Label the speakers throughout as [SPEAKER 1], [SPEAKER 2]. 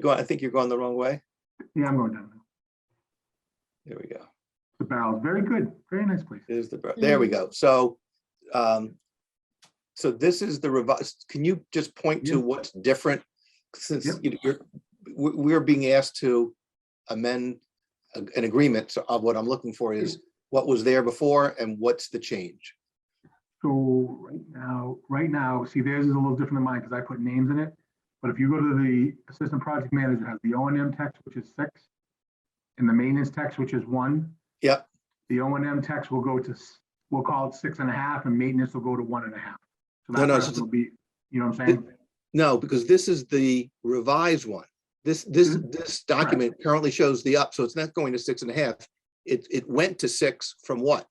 [SPEAKER 1] going, I think you're going the wrong way.
[SPEAKER 2] Yeah, I'm going down now.
[SPEAKER 1] There we go.
[SPEAKER 2] The barrels, very good, very nice place.
[SPEAKER 1] There's the, bro- there we go. So, um, so this is the revised, can you just point to
[SPEAKER 2] Yeah.
[SPEAKER 1] what's different? Since
[SPEAKER 2] Yep.
[SPEAKER 1] you- you're, we, we're being asked to amend a- an agreement So, of what I'm looking for is what was there before and what's the change?
[SPEAKER 2] So right now, right now, see, theirs is a little different than mine because I put names in it. But if you go to the assistant project manager, it has the O and M text, which is six, and the maintenance text, which is one.
[SPEAKER 1] Yep.
[SPEAKER 2] The O and M text will go to, s- we'll call it six and a half, and maintenance will go to one and a half. So
[SPEAKER 1] No,
[SPEAKER 2] that
[SPEAKER 1] no, it's
[SPEAKER 2] person
[SPEAKER 1] just-
[SPEAKER 2] will be, you know what I'm saying?
[SPEAKER 1] No, because this is the revised one. This, this,
[SPEAKER 2] Mhm.
[SPEAKER 1] this document currently shows the up, so it's not going to six and a half. It, it went to six from what?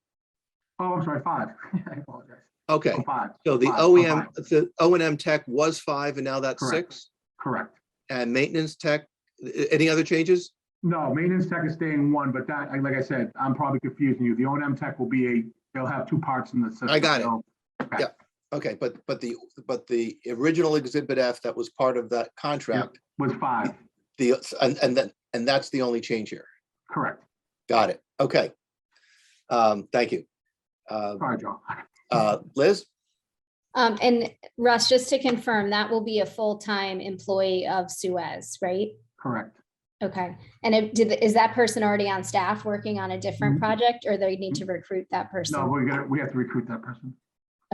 [SPEAKER 2] Oh, I'm sorry, five. I apologize.
[SPEAKER 1] Okay.
[SPEAKER 2] Oh, Five,
[SPEAKER 1] So the
[SPEAKER 2] Five,
[SPEAKER 1] OEM,
[SPEAKER 2] combined.
[SPEAKER 1] the O and M tech was five and now that's
[SPEAKER 2] Correct.
[SPEAKER 1] six?
[SPEAKER 2] correct.
[SPEAKER 1] And maintenance tech, a- any other changes?
[SPEAKER 2] No, maintenance tech is staying one, but that, I- like I said, I'm probably confusing you. The O and M tech will be a, they'll have two parts in the system.
[SPEAKER 1] I got it.
[SPEAKER 2] so- okay,
[SPEAKER 1] Yep. Okay, but, but the, but the original exhibit F that was part of that contract,
[SPEAKER 2] Was five,
[SPEAKER 1] the, and, and then, and that's the only change here.
[SPEAKER 2] correct.
[SPEAKER 1] Got it. Okay. Um, thank you. Uh,
[SPEAKER 2] Sorry, John.
[SPEAKER 1] uh, Liz,
[SPEAKER 3] Um, and Russ, just to confirm, that will be a full-time employee of Suez, right?
[SPEAKER 2] Correct.
[SPEAKER 3] Okay, and it, did, is that person already on staff working on a different
[SPEAKER 2] Mhm.
[SPEAKER 3] project or they need to recruit that
[SPEAKER 2] Mm-hmm. No,
[SPEAKER 3] person?
[SPEAKER 2] we gotta, we have to recruit that person.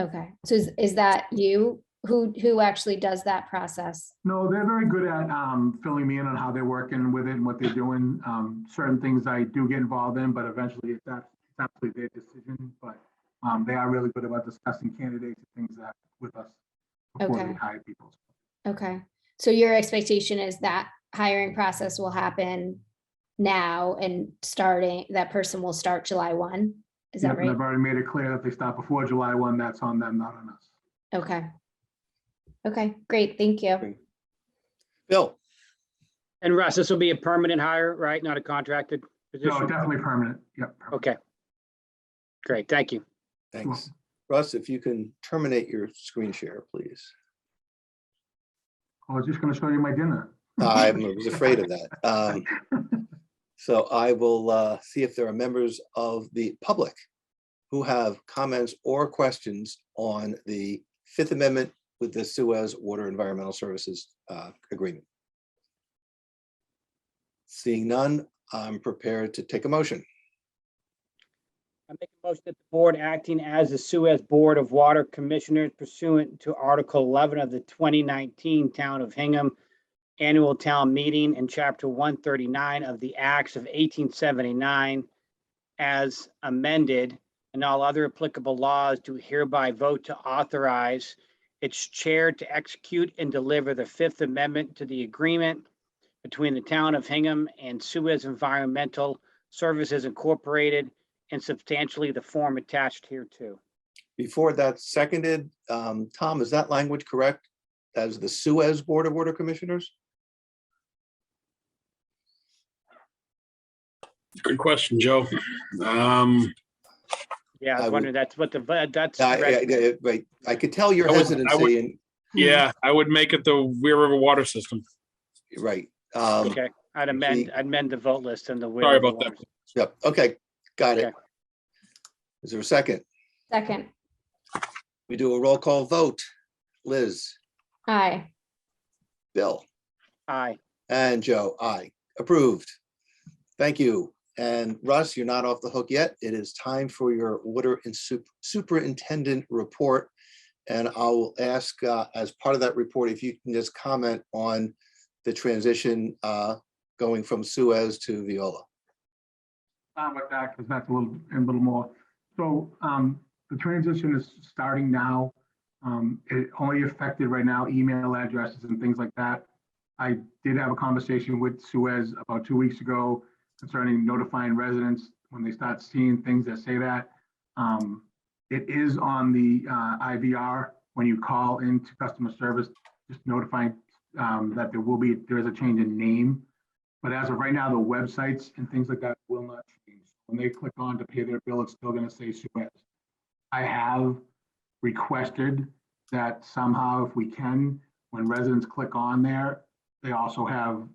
[SPEAKER 3] Okay, so is, is that you? Who, who actually does that process?
[SPEAKER 2] No, they're very good at um, filling me in on how they're working with it and what they're doing. Um, Certain things I do get involved in, but eventually it's ab- it's absolutely their decision. But um, they are really good about discussing candidates and things that with us before
[SPEAKER 3] Okay.
[SPEAKER 2] they hire people.
[SPEAKER 3] Okay, so your expectation is that hiring process will happen now and starting, that person will start July one? Is
[SPEAKER 2] Yep, and
[SPEAKER 3] that right?
[SPEAKER 2] I've already made it clear that if they stop before July 1, that's on them, not on us.
[SPEAKER 3] Okay. Okay, great, thank you.
[SPEAKER 1] Bill,
[SPEAKER 4] And Russ, this will be a permanent hire, right? Not a contracted
[SPEAKER 2] No,
[SPEAKER 4] position?
[SPEAKER 2] definitely permanent. Yep. permanent.
[SPEAKER 4] Okay. Great, thank you.
[SPEAKER 1] thanks. Russ, if you can terminate your screen share, please.
[SPEAKER 2] I was just going to show you my dinner.
[SPEAKER 1] I was afraid of that. Um, So I will uh, see if there are members of the public who have comments or questions on the Fifth Amendment with the Suez Water Environmental Services uh, Agreement. Seeing none, I'm prepared to take a motion.
[SPEAKER 4] I make a motion that the board acting as the Suez Board of Water Commissioners pursuant to Article 11 of the 2019 Town of Hingham Annual Town Meeting and Chapter 139 of the Acts of 1879 as amended and all other applicable laws do hereby vote to authorize its chair to execute and deliver the Fifth Amendment to the agreement between the Town of Hingham and Suez Environmental Services Incorporated and substantially the form attached here too.
[SPEAKER 1] Before that's seconded, um, Tom, is that language correct as the Suez Board of Water Commissioners?
[SPEAKER 5] Good question, Joe. Um,
[SPEAKER 4] Yeah,
[SPEAKER 1] I
[SPEAKER 4] I was
[SPEAKER 1] would-
[SPEAKER 4] wondering, that's what the, but that's.
[SPEAKER 1] I- I-
[SPEAKER 4] correct.
[SPEAKER 1] I- Right, I could tell your
[SPEAKER 5] I would- I would-
[SPEAKER 1] hesitancy and,
[SPEAKER 5] yeah, I would make it the Weir River Water System.
[SPEAKER 1] right. um,
[SPEAKER 4] Okay, I'd amend, I'd amend the vote list and the. will
[SPEAKER 5] Sorry
[SPEAKER 4] of the
[SPEAKER 5] about that.
[SPEAKER 4] voters.
[SPEAKER 1] Yep, okay, got it.
[SPEAKER 4] Okay.
[SPEAKER 1] Is there a second?
[SPEAKER 3] Second,
[SPEAKER 1] We do a roll call vote. Liz,
[SPEAKER 3] aye.
[SPEAKER 1] Bill,
[SPEAKER 4] Aye,
[SPEAKER 1] and Joe, aye. Approved. Thank you. And Russ, you're not off the hook yet. It is time for your water and sup- superintendent report. And I will ask, uh, as part of that report, if you can just comment on the transition uh, going from Suez to Viola.
[SPEAKER 2] Not with that, because that's a little, a little more. So um, the transition is starting now. Um, It only affected right now email addresses and things like that. I did have a conversation with Suez about two weeks ago concerning notifying residents when they start seeing things that say that. Um, It is on the uh, IVR, when you call into customer service, just notifying um, that there will be, there is a change in name. But as of right now, the websites and things like that will not change. When they click on to pay their bill, it's still gonna say Suez. I have requested that somehow, if we can, when residents click on there, they also have